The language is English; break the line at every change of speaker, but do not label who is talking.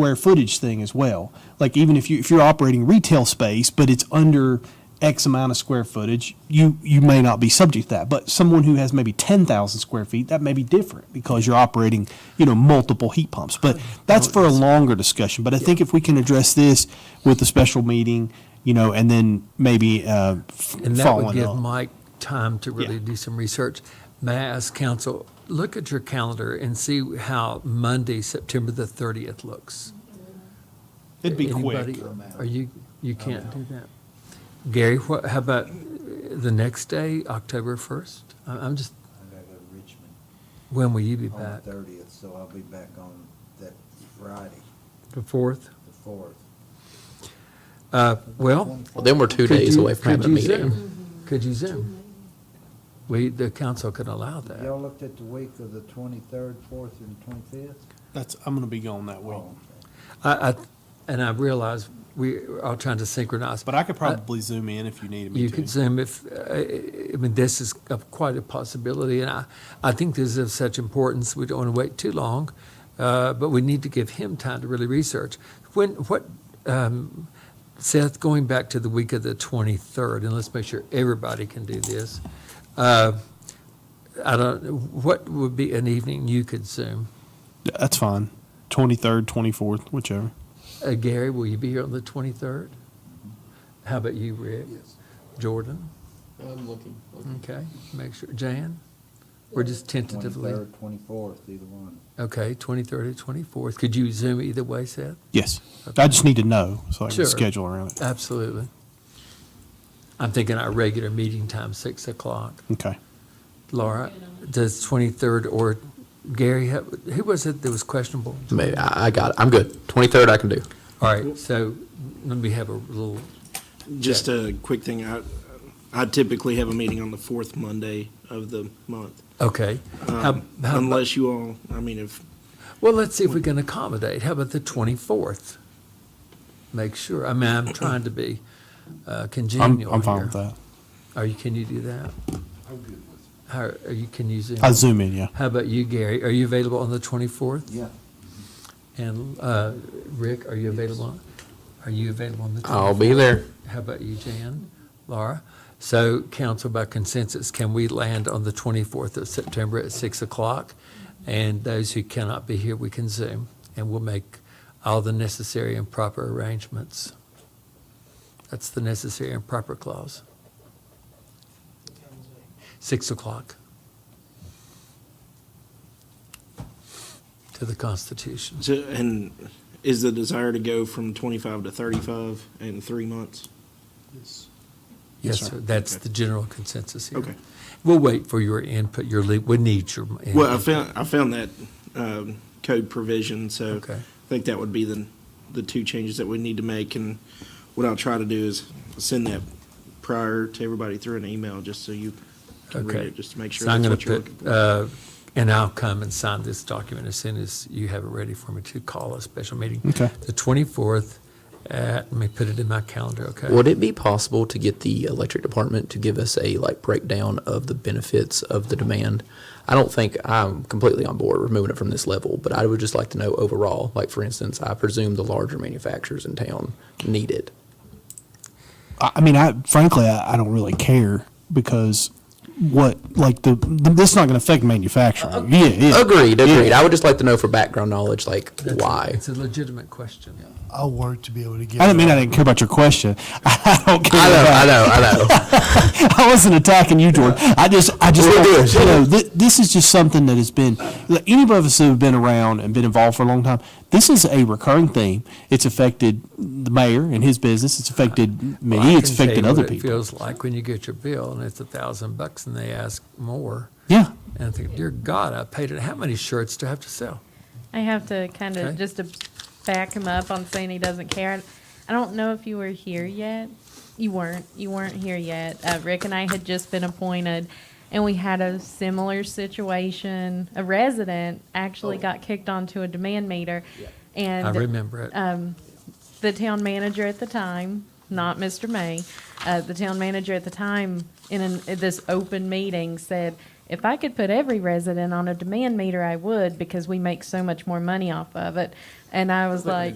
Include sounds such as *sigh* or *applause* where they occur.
square footage thing as well. Like even if you, if you're operating retail space, but it's under X amount of square footage, you, you may not be subject to that. But someone who has maybe ten thousand square feet, that may be different because you're operating, you know, multiple heat pumps. But that's for a longer discussion. But I think if we can address this with a special meeting, you know, and then maybe, uh, f-
And that would
following
give
up.
Mike time to really
Yeah.
do some research. May I ask council, look at your calendar and see how Monday, September the 30th looks.
It'd be
Anybody-
quick.
Are you, you can't do that? Gary, what, how about uh, the next day, October 1st? I- I'm just,
I gotta go to Richmond
when will you be
on the
back?
thirtieth, so I'll be back on that Friday,
The 4th?
the fourth.
Uh, Well.
Well, then we're two
could
days
you-
away from
could
having a
you
meeting.
Zoom? Could you Zoom? We, the council could allow that.
Y'all looked at the week of the twenty-third, fourth, and twenty-fifth?
That's, I'm gonna be gone that week,
I, I, and I realize we are all trying to synchronize.
but I could probably zoom in if you needed me to.
You could Zoom if, uh, I mean, this is a- quite a possibility, and I, I think this is of such importance, we don't want to wait too long, uh, but we need to give him time to really research. When, what, um, Seth, going back to the week of the 23rd, and let's make sure everybody can do this. uh, I don't, what would be an evening you could Zoom?
That's fine. Twenty third, twenty fourth, whichever.
Uh, Gary, will you be here on the 23rd? How about you, Rick? Yes. Jordan?
I'm looking.
Okay, make sure, Jan? We're just tentatively,
Twenty-third, twenty-fourth, either one.
okay, 23rd or 24th. Could you Zoom either way, Seth?
Yes. I just need to know so I can
Sure.
schedule around it.
Absolutely. I'm thinking our regular meeting time, 6 o'clock.
Okay.
Laura, does 23rd or Gary, have- who was it that was questionable?
Maybe, I, I got it. I'm good. 23rd I can do.
All right, so let me have a little,
Just a quick thing, I, I typically have a meeting on the fourth Monday of the
*laughs*
month.
okay. How-
Um,
how-
Unless you all, I mean, if,
Well, let's see if we can accommodate. How about the 24th? Make sure, I mean, I'm trying to be uh, congenial
I'm,
here.
I'm fine with that.
Are you, can you do that? How, are you, can you Zoom?
I zoom in, yeah.
How about you, Gary? Are you available on the 24th?
Yeah.
And uh, Rick, are you available? on- Are you available on the 24th?
I'll be there.
How about you, Jan? Laura? So council by consensus, can we land on the 24th of September at 6 o'clock? And those who cannot be here, we can Zoom, and we'll make all the necessary and proper arrangements. That's the necessary and proper clause. 6 o'clock. To the Constitution.
so- and is the desire to go from twenty-five to thirty-five in three months?
Yes,
Yes, sir.
sir, that's
Okay.
the general consensus here.
Okay.
We'll wait for your input, your, le- we need your.
Well, I
input.
found, I found that, um, code provision, so
Okay.
I think that would be the, the two changes that we need to make. And what I'll try to do is send that prior to everybody through an email, just so you can read
Okay.
it, just to make sure
So I'm
that's
going
what
to
you're looking for.
put, uh, and I'll come and sign this document as soon as you have it ready for me to call a special meeting.
Okay.
The 24th, at- let me put it in my calendar, okay?
Would it be possible to get the electric department to give us a like breakdown of the benefits of the demand? I don't think I'm completely on board removing it from this level, but I would just like to know overall. Like for instance, I presume the larger manufacturers in town need it.
I, I mean, I frankly, I, I don't really care because what, like the, the this is not going to affect manufacturing. Yeah, yeah.
Agreed,
Yeah.
agreed. I would just like to know for background knowledge, like
That's a-
why.
It's a legitimate question.
I'll work to be able to get.
I didn't mean I didn't care about your question. *laughs* I don't care.
I know,
about-
I know,
*laughs*
I know.
I wasn't attacking you, Jordan. I just, I just,
We're good.
you know, thi- this is just something that has been, like, any of us who have been around and been involved for a long time, this is a recurring theme. It's affected the mayor and his business. It's affected
Well, I
me. It's
can tell you
affected
what
other
It
people.
feels like when you get your bill and it's a thousand bucks and they ask more.
Yeah.
And I think, dear God, I paid it, how many shirts do I have to sell?
I have to kind of
Okay.
just to back him up on saying he doesn't care. I don't know if you were here yet. You weren't. You weren't here yet. Uh, Rick and I had just been appointed, and we had a similar situation. A resident actually got kicked onto a demand meter, and
I remember it.
the town manager at the time, not Mr. May, uh, the town manager at the time in an, in this open meeting said, If I could put every resident on a demand meter, I would because we make so much more money off of it. And I was like,